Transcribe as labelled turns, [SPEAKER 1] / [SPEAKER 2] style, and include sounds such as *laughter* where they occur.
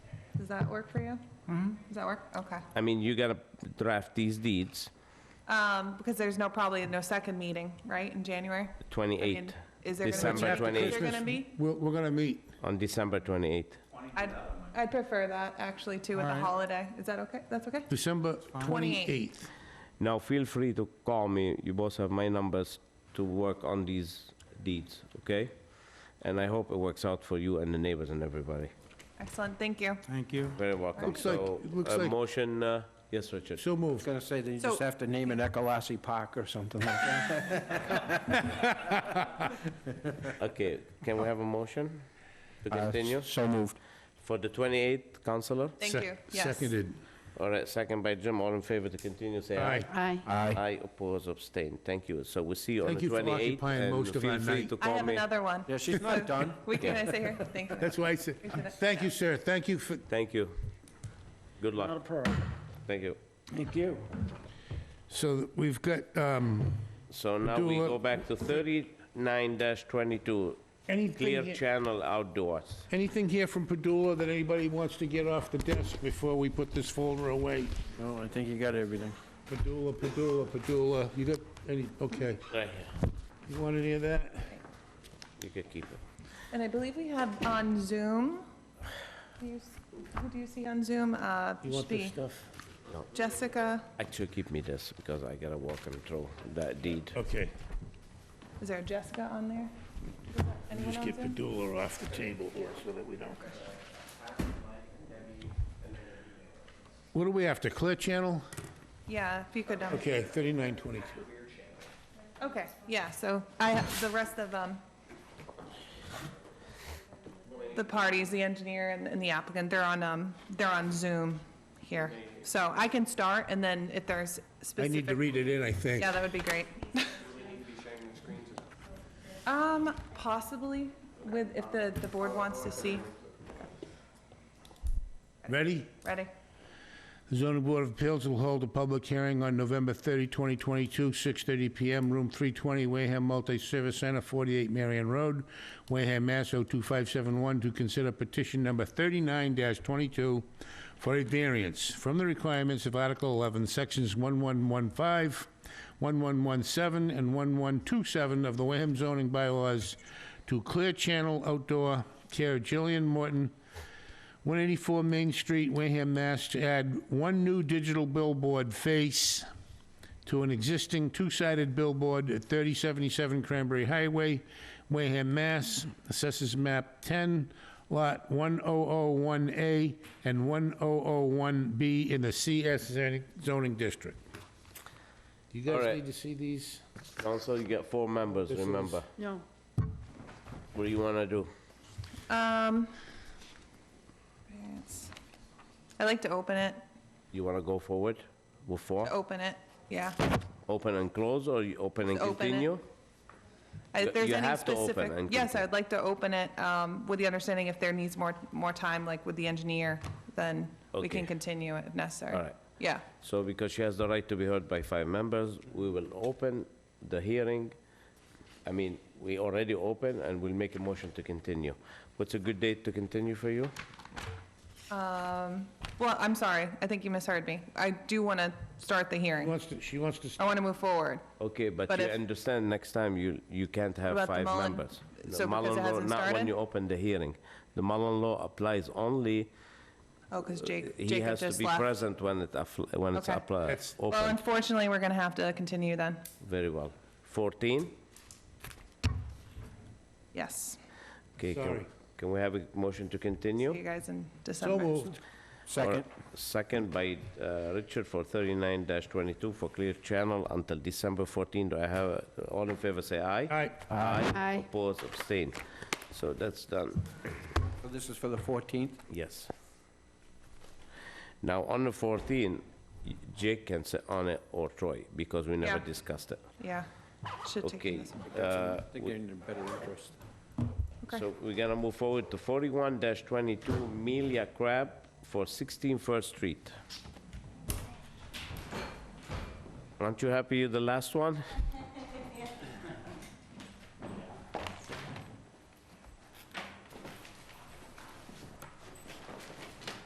[SPEAKER 1] that work for you? Does that work? Okay.
[SPEAKER 2] I mean, you gotta draft these deeds,
[SPEAKER 1] Um, because there's no, probably no second meeting, right, in January? I mean,
[SPEAKER 2] 28,
[SPEAKER 1] Is there gonna
[SPEAKER 2] December
[SPEAKER 1] be, is
[SPEAKER 2] 28th.
[SPEAKER 1] there gonna be?
[SPEAKER 3] We're, we're gonna meet.
[SPEAKER 2] on December 28.
[SPEAKER 1] I'd, I'd prefer that, actually, too, with the
[SPEAKER 3] Alright.
[SPEAKER 1] holiday. Is that okay? That's okay?
[SPEAKER 3] December
[SPEAKER 1] 28th.
[SPEAKER 3] 28th.
[SPEAKER 2] Now, feel free to call me, you both have my numbers, to work on these deeds, okay? And I hope it works out for you and the neighbors and everybody.
[SPEAKER 1] Excellent, thank you.
[SPEAKER 4] Thank you.
[SPEAKER 2] Very welcome.
[SPEAKER 3] Looks like-
[SPEAKER 2] So,
[SPEAKER 3] it looks
[SPEAKER 2] a
[SPEAKER 3] like-
[SPEAKER 2] motion, uh, yes, Richard?
[SPEAKER 3] So
[SPEAKER 5] was
[SPEAKER 3] moved.
[SPEAKER 5] gonna say that you
[SPEAKER 1] So-
[SPEAKER 5] just have to name it Ecolassi Park or something like that.
[SPEAKER 2] Okay, can we have a motion to
[SPEAKER 5] Uh,
[SPEAKER 2] continue?
[SPEAKER 5] So moved.
[SPEAKER 2] For the 28th, Counselor?
[SPEAKER 1] Thank
[SPEAKER 3] Sec-
[SPEAKER 1] you, yes.
[SPEAKER 3] Seconded.
[SPEAKER 2] All right, second by Jim, all in favor to continue, say aye.
[SPEAKER 3] Aye.
[SPEAKER 6] Aye.
[SPEAKER 5] Aye.
[SPEAKER 2] Aye, oppose, abstain, thank you. So we'll see you on
[SPEAKER 3] Thank
[SPEAKER 2] the
[SPEAKER 3] you for
[SPEAKER 2] 28th,
[SPEAKER 3] occupying most
[SPEAKER 2] and
[SPEAKER 3] of our
[SPEAKER 2] feel free
[SPEAKER 3] night.
[SPEAKER 2] to
[SPEAKER 1] I
[SPEAKER 2] call
[SPEAKER 1] have
[SPEAKER 2] me.
[SPEAKER 1] another one.
[SPEAKER 5] Yeah, she's
[SPEAKER 1] *laughs*
[SPEAKER 5] not done.
[SPEAKER 1] We can, I say here, thank you.
[SPEAKER 3] That's why I said, thank you, sir. Thank you for,
[SPEAKER 2] Thank you. Good
[SPEAKER 5] Not a
[SPEAKER 2] luck,
[SPEAKER 5] problem.
[SPEAKER 2] thank you.
[SPEAKER 5] Thank you.
[SPEAKER 3] so we've got, um,
[SPEAKER 2] So now we
[SPEAKER 3] do a-
[SPEAKER 2] go back to 39-22,
[SPEAKER 3] anything,
[SPEAKER 2] clear
[SPEAKER 3] he-
[SPEAKER 2] channel outdoors.
[SPEAKER 3] anything here from Padula that anybody wants to get off the desk before we put this folder away?
[SPEAKER 5] No, I think you got everything.
[SPEAKER 3] Padula, Padula, Padula. You got any, okay.
[SPEAKER 2] Right here,
[SPEAKER 3] You want any of that?
[SPEAKER 2] you could keep it.
[SPEAKER 1] And I believe we have on Zoom, do you s- who do you see on Zoom? Uh,
[SPEAKER 3] You want this
[SPEAKER 1] should be
[SPEAKER 3] stuff?
[SPEAKER 1] Jessica,
[SPEAKER 2] Actually, keep me this, because I gotta walk him through that deed.
[SPEAKER 3] Okay.
[SPEAKER 1] is there a Jessica on there? Anyone
[SPEAKER 3] Just
[SPEAKER 1] on
[SPEAKER 3] get
[SPEAKER 1] Zoom?
[SPEAKER 3] Padula off the table here so that we don't. What do we have to Clear Channel?
[SPEAKER 1] Yeah, if you could, um,
[SPEAKER 3] Okay, 3922.
[SPEAKER 1] okay, yeah, so I, have the rest of, um, the parties, the engineer and and the applicant, they're on, um, they're on Zoom here. So I can start, and then if there's
[SPEAKER 3] I
[SPEAKER 1] specific...
[SPEAKER 3] need to read it in, I think.
[SPEAKER 1] Yeah, that would be great. Um, possibly, with, if the, the board wants to see.
[SPEAKER 3] Ready?
[SPEAKER 1] Ready?
[SPEAKER 3] The zoning board of appeals will hold a public hearing on November 30, 2022, 6:30 PM, room 320, Wareham Multi-Service Center, 48 Marion Road, Wareham, Mass. 02571, to consider petition number 39-22 for a variance from the requirements of Article 11, Sections 1115, 1117, and 1127 of the Wareham zoning bylaws to clear channel outdoor care Jillian Morton, 184 Main Street, Wareham, Mass. to add one new digital billboard face to an existing two-sided billboard at 3077 Cranberry Highway, Wareham, Mass. Assesses map 10, lot 1001A and 1001B in the CS zoning- zoning district. Do you guys
[SPEAKER 2] Alright.
[SPEAKER 3] need to see these?
[SPEAKER 2] Council, you got four members, remember.
[SPEAKER 6] No.
[SPEAKER 2] What do you wanna do?
[SPEAKER 1] Um, it's- I like to open it,
[SPEAKER 2] You wanna go forward with four?
[SPEAKER 1] open it, yeah.
[SPEAKER 2] Open and close, or you open and
[SPEAKER 1] Just open it.
[SPEAKER 2] continue?
[SPEAKER 1] I- If
[SPEAKER 2] You-
[SPEAKER 1] Uh, there's
[SPEAKER 2] you
[SPEAKER 1] any
[SPEAKER 2] have to open
[SPEAKER 1] specific,
[SPEAKER 2] and
[SPEAKER 1] yes,
[SPEAKER 2] continue.
[SPEAKER 1] I'd like to open it, um, with the understanding if there needs more, more time, like with the engineer, then we
[SPEAKER 2] Okay.
[SPEAKER 1] can continue it if necessary.
[SPEAKER 2] All right.
[SPEAKER 1] Yeah,
[SPEAKER 2] So because she has the right to be heard by five members, we will open the hearing. I mean, we already open, and we'll make a motion to continue. What's a good date to continue for you?
[SPEAKER 1] well, I'm sorry, I think you misheard me. I do want to start the
[SPEAKER 3] She
[SPEAKER 1] hearing.
[SPEAKER 3] wants to, she wants to, s-
[SPEAKER 1] I want to move forward.
[SPEAKER 2] Okay, but
[SPEAKER 1] But
[SPEAKER 2] you
[SPEAKER 1] if-
[SPEAKER 2] understand, next time, you, you can't have
[SPEAKER 1] About the
[SPEAKER 2] five
[SPEAKER 1] Mullen-
[SPEAKER 2] members.
[SPEAKER 1] so
[SPEAKER 2] The
[SPEAKER 1] because it
[SPEAKER 2] Mullen law-
[SPEAKER 1] hasn't
[SPEAKER 2] Not when
[SPEAKER 1] started?
[SPEAKER 2] you open the hearing. The Mullen law applies only,
[SPEAKER 1] Oh, because Jake,
[SPEAKER 2] he
[SPEAKER 1] Jacob
[SPEAKER 2] has to
[SPEAKER 1] just
[SPEAKER 2] be
[SPEAKER 1] left.
[SPEAKER 2] present when it, affl- when it's
[SPEAKER 1] Okay.
[SPEAKER 2] appli-
[SPEAKER 3] That's-
[SPEAKER 1] Well,
[SPEAKER 2] open.
[SPEAKER 1] unfortunately, we're going to have to continue then.
[SPEAKER 2] Very well. 14?
[SPEAKER 1] Yes.
[SPEAKER 2] Okay, can-
[SPEAKER 3] Sorry.
[SPEAKER 2] Can we have a motion to
[SPEAKER 1] See
[SPEAKER 2] continue?
[SPEAKER 1] you guys in
[SPEAKER 3] so
[SPEAKER 1] December.
[SPEAKER 3] moved.
[SPEAKER 2] Or
[SPEAKER 5] Second.
[SPEAKER 2] Second by uh, Richard for 39-22 for Clear Channel until December 14. Do I have, a- all in favor, say aye.
[SPEAKER 3] All right,
[SPEAKER 2] Aye.
[SPEAKER 6] Aye.
[SPEAKER 2] Oppose, abstain. So that's done,
[SPEAKER 5] So This is for the 14th?
[SPEAKER 2] yes. Now, on the 14, y- Jake can say on it or Troy, because we never
[SPEAKER 1] Yeah.
[SPEAKER 2] discussed it.
[SPEAKER 1] Yeah. Should take
[SPEAKER 2] Okay.
[SPEAKER 1] this one.
[SPEAKER 2] uh,
[SPEAKER 5] I think they're in better interest.
[SPEAKER 1] Okay.
[SPEAKER 2] So we're gonna move forward to 41-22 Melia Crab for 16 First Street. Aren't you happy you're the last one?